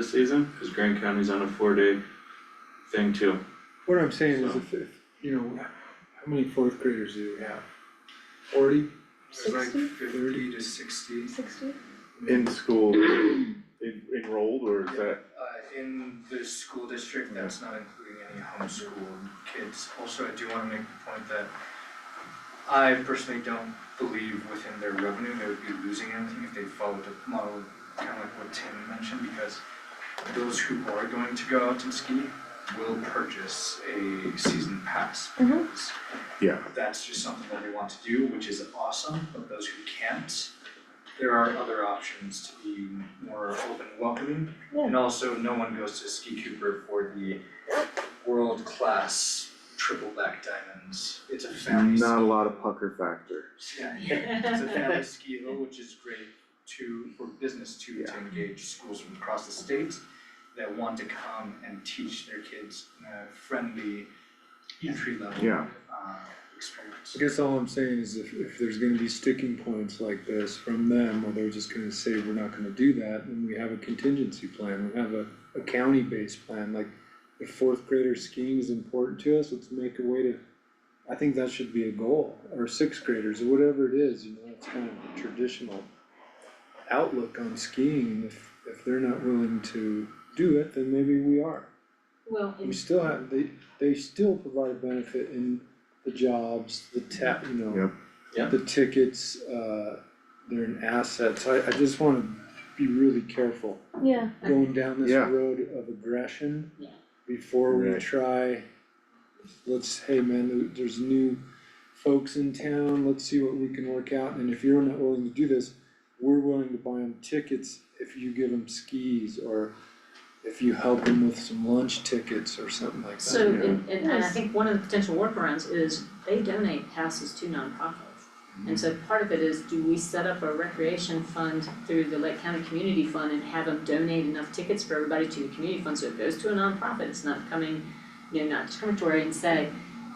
this season, cause Grand County's on a four-day thing too. What I'm saying is So- if, if, you know, how many fourth graders do we have? Forty It's like 60? fifty to sixty. Sixty? in school en- enrolled, or is that, Uh, in the school district, that's not including any homeschooled kids. Also, I do wanna make the point that I personally don't believe within their revenue, they would be losing anything if they followed the model, kinda like what Tim mentioned, because those who are going to go out and ski will purchase a season pass. Mhm. because yeah, that's just something that they want to do, which is awesome, but those who can't, there are other options to be more open and welcoming. And also, no one goes to Ski Cooper for the world-class triple back diamonds. It's a family, not a lot of pucker factor. ski- yeah, it's a family ski hill, which is great to, for business to, to Yeah. engage schools from across the state that want to come and teach their kids in a friendly, entry level, Yeah. uh, experience. I guess all I'm saying is if, if there's gonna be sticking points like this from them, or they're just gonna say, we're not gonna do that, then we have a contingency plan, we have a, a county-based plan, like if fourth grader skiing is important to us, let's make a way to, I think that should be a goal, or sixth graders, or whatever it is, you know, it's kind of a traditional outlook on skiing, if, if they're not willing to do it, then maybe we are. Well, We and still have, they, they still provide benefit in the jobs, the tap, you know. Yep. Yep. The tickets, uh, they're an asset, so I, I just wanna be really careful yeah, going down this Yeah. road of aggression. Yeah. Before we Right. try, let's, hey man, there- there's new folks in town, let's see what we can work out, and if you're not willing to do this, we're willing to buy them tickets if you give them skis, or if you help them with some lunch tickets or something like that. So, Yeah. and, and I Yes. think one of the potential workarounds is they donate passes to nonprofits. And so part of it is, do we set up a recreation fund through the Lake County Community Fund and have them donate enough tickets for everybody to the community fund, so it goes to a nonprofit, it's not coming, you know, not discriminatory and say,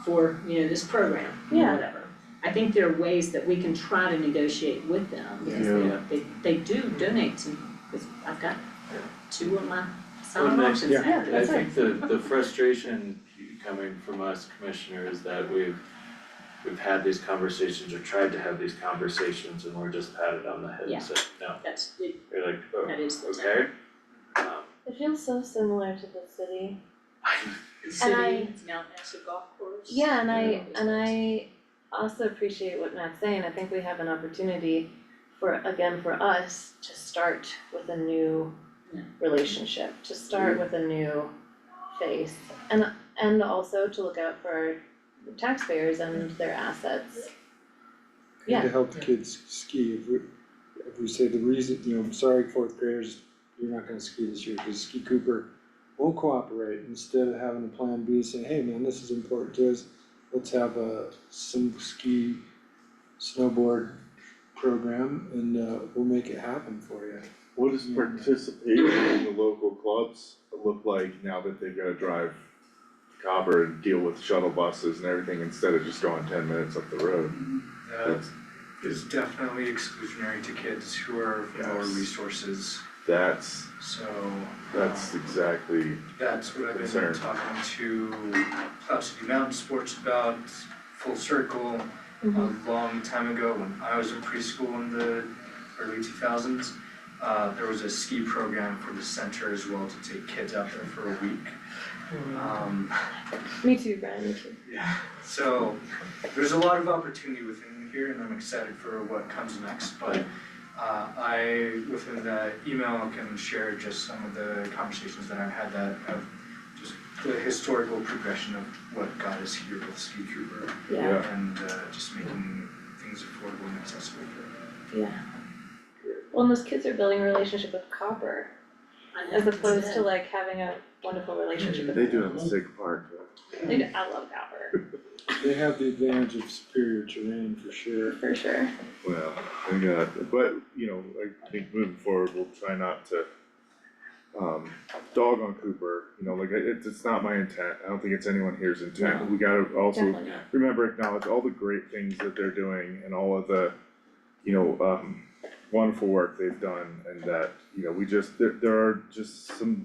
for, you know, this program, or Yeah. whatever. I think there are ways that we can try to negotiate with them, because Yeah. they, they, they do donate to, because I've got two of my Well, sound they- options Yeah. now. And I That's think the, the frustration coming from us commissioner is that we've, we've had these conversations or tried to have these conversations and we're just patted on the head Yeah. and said, no, That's, it- you're like, that oh, is the town. okay. Um, it feels so similar to the city. city, I- it's Mount Nashua Golf Course. Yeah, and I, Yeah. and I also appreciate what Matt's saying, I think we have an opportunity for, again, for us to start with a new Yeah. Mm-hmm. relationship, to start with a new face. And, and also to look out for our taxpayers and their assets. And Yeah. to help the kids ski, if we, if we say the reason, you know, I'm sorry, fourth graders, you're not gonna ski this year, cause Ski Cooper won't cooperate, instead of having a plan B, say, hey man, this is important to us, let's have a, some ski, snowboard program, and, uh, we'll make it happen for you. What does participation in the local clubs look like now that they've gotta drive Copper and deal with shuttle buses and everything instead of just going ten minutes up the road? Uh, That's, is definitely exclusionary to kids who are from lower Yes. resources, that's, so. that's um, exactly, That's what I've concern. been talking to Cloud City Mountain Sports about, Full Circle, a long time ago when I was in preschool in the early two thousands. Uh, there was a ski program for the center as well to take kids out there for a week. Um, Me too, Brian, me too. yeah, so there's a lot of opportunity within here and I'm excited for what comes next, but uh I, within the email, can share just some of the conversations that I've had that have just the historical progression of what got us here with Ski Cooper Yeah, Yeah. and uh just making things affordable and accessible for yeah. Well, and those kids are building a relationship with copper, I know, as that's opposed to it. like having a wonderful relationship with. they do it in Sig Park, They do- I love copper, They have the advantage of superior terrain for sure. for sure. Well, I got, but, you know, I think moving forward, we'll try not to um, dog on Cooper, you know, like, it's, it's not my intent, I don't think it's anyone here's intent, we gotta also Definitely not. remember, acknowledge all the great things that they're doing and all of the, you know, um, wonderful work they've done and that, you know, we just, there there are just some